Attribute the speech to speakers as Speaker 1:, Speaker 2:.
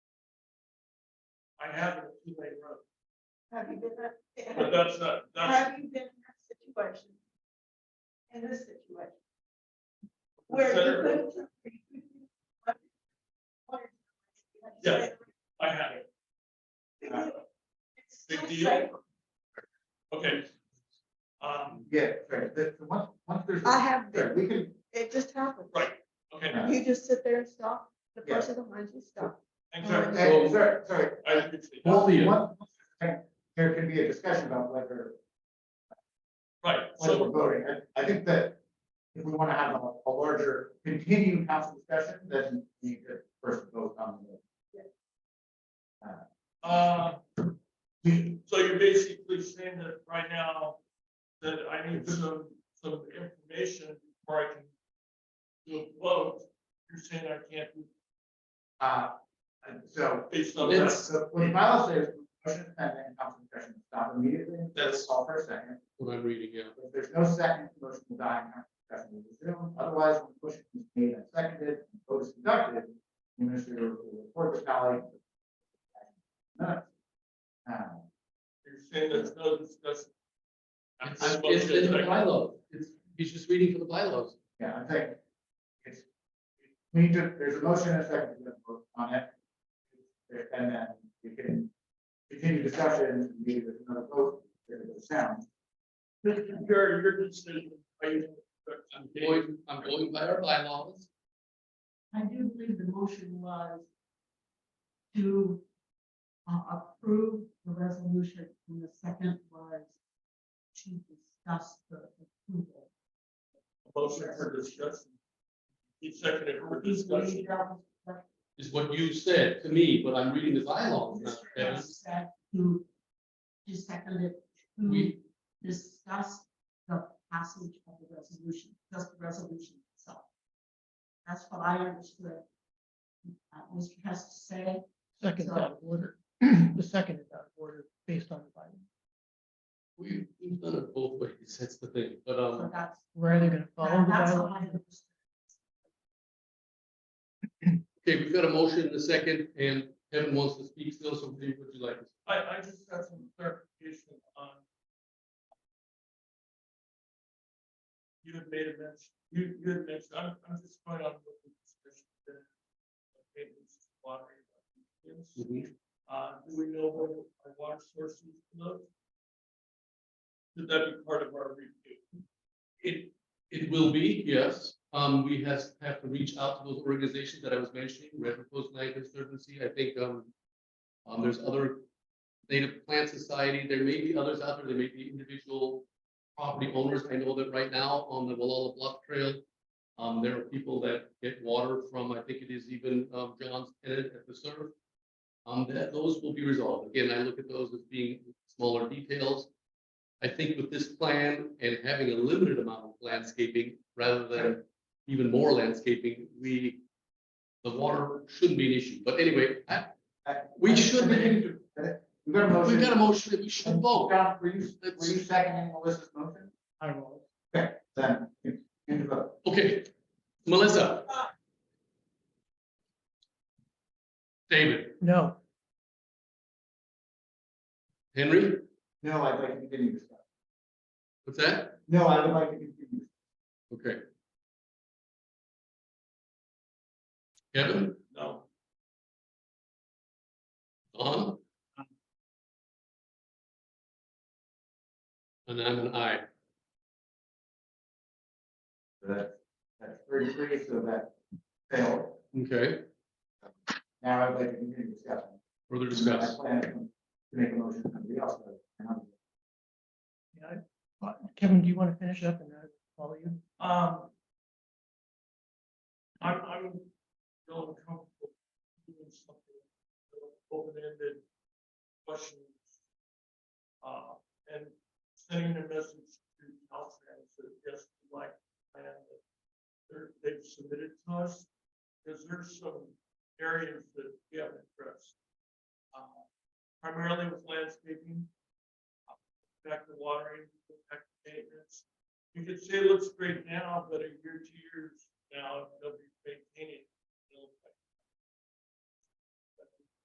Speaker 1: I have a two-way road,
Speaker 2: Have you been,
Speaker 1: but
Speaker 2: in-
Speaker 1: that's not, that's,
Speaker 2: have you been in that situation? In this situation? Where you
Speaker 1: consider-
Speaker 2: couldn't.
Speaker 1: Yeah. Uh, I have it,
Speaker 2: It's still
Speaker 1: Big deal.
Speaker 2: safe.
Speaker 1: okay. Um,
Speaker 3: Yeah, right, that, the once, once there's.
Speaker 2: I have
Speaker 3: Right,
Speaker 2: been,
Speaker 3: we can,
Speaker 2: it just happened.
Speaker 1: Right. okay,
Speaker 2: You just sit there and stop, the
Speaker 3: Yeah.
Speaker 2: person behind you stop.
Speaker 1: exactly.
Speaker 3: and, sorry, sorry.
Speaker 1: I appreciate that.
Speaker 3: Once-
Speaker 4: uh,
Speaker 3: once- okay, There can be a discussion about whether,
Speaker 1: Right,
Speaker 3: whether
Speaker 1: so,
Speaker 3: we're voting, I, I think that if we wanna have a, a larger continued council discussion, then the first vote on the.
Speaker 1: uh, so you're basically saying that right now, that I need some, some information before I can do a vote, you're saying I can't do
Speaker 3: Uh, and so,
Speaker 1: based on that,
Speaker 3: so what the bylaw says, motion and then council discussion, stop immediately,
Speaker 1: That's-
Speaker 3: call for a second.
Speaker 4: What I'm reading, yeah.
Speaker 3: If there's no second, the motion will die and our discussion will resume. Otherwise, when the motion is made and seconded, and vote is conducted, the administrator will report the tally. Minutes. Um,
Speaker 1: you're saying there's no discussion.
Speaker 4: I'm- It's in the bylaw, it's, he's just reading from the bylaws.
Speaker 3: Yeah, I think it's, we need to, there's a motion and a second to vote on it. And then you can continue discussion, maybe there's another vote, there's a sound.
Speaker 1: Mr. Chair, your decision, are you?
Speaker 4: I'm going, I'm going by our bylaws.
Speaker 5: I do believe the motion was to uh, approve the resolution, and the second was to discuss the approval.
Speaker 1: Motion for discussion. Each seconded for discussion.
Speaker 5: Discussion.
Speaker 4: Is what you said to me, but I'm reading the
Speaker 1: Oh,
Speaker 4: bylaws. not Dennis.
Speaker 5: To, to second it, to
Speaker 4: We-
Speaker 5: discuss the passage of the resolution, just the resolution itself. That's what I understood. uh, Mr. Hess to say,
Speaker 6: Second
Speaker 5: So-
Speaker 6: out of order, the second is out of order based on the Bible.
Speaker 4: We- We've done it both ways, that's the thing, but,
Speaker 5: so
Speaker 4: um,
Speaker 5: that's,
Speaker 6: We're either gonna follow the
Speaker 5: that's
Speaker 6: Bible.
Speaker 5: what I understood.
Speaker 4: okay, we've got a motion in a second, and Kevin wants to speak still, so please, would you like? to
Speaker 1: I, I just got some clarification on. You had made a mention, you, you had mentioned, I'm, I'm just going on with the discussion. that, okay, this is water, yes.
Speaker 4: speak?
Speaker 1: Uh, do we know what our water sources look? Should that be part of our review?
Speaker 4: It, it will be, yes. Um, we has, have to reach out to those organizations that I was mentioning, Red Post Night Conservancy, I think, um. Um, there's other Native Plant Society, there may be others out there, there may be individual property owners. I know that right now on the Walla Bluff Trail. Um, there are people that get water from, I think it is even, um, John's tenant at the surf. Um, that, those will be resolved. Again, I look at those as being smaller details. I think with this plan and having a limited amount of landscaping rather than even more landscaping, we. The water shouldn't be an issue, but anyway, I, we should be,
Speaker 3: We've got a motion.
Speaker 4: we've got a motion, that we should vote.
Speaker 3: John, were you, were you seconding Melissa's motion?
Speaker 6: I will.
Speaker 3: Then, you can vote.
Speaker 4: Okay, Melissa. David,
Speaker 6: No,
Speaker 4: Henry,
Speaker 3: No, I'd like to continue this.
Speaker 4: what's that?
Speaker 3: No, I would like to continue.
Speaker 4: Okay. Kevin,
Speaker 1: No,
Speaker 4: Don? And I'm an I.
Speaker 3: That, that's thirty-three, so that failed.
Speaker 4: Okay,
Speaker 3: Now I'd like to continue discussion.
Speaker 4: further
Speaker 3: I
Speaker 4: discuss.
Speaker 3: plan to make a motion, somebody else. does, and I'm-
Speaker 6: But Kevin, do you want to finish up and then I'll follow you?
Speaker 1: um. I'm, I'm feeling comfortable doing something, open-ended questions. Uh, and sending a message to Caltrans that yes, we like the plan that they're, they've submitted to us. Because there's some areas that we haven't addressed. Uh, Primarily with landscaping. uh, Back to watering, back to maintenance. You could say it looks great now, but a year, two years now, they'll be maintaining.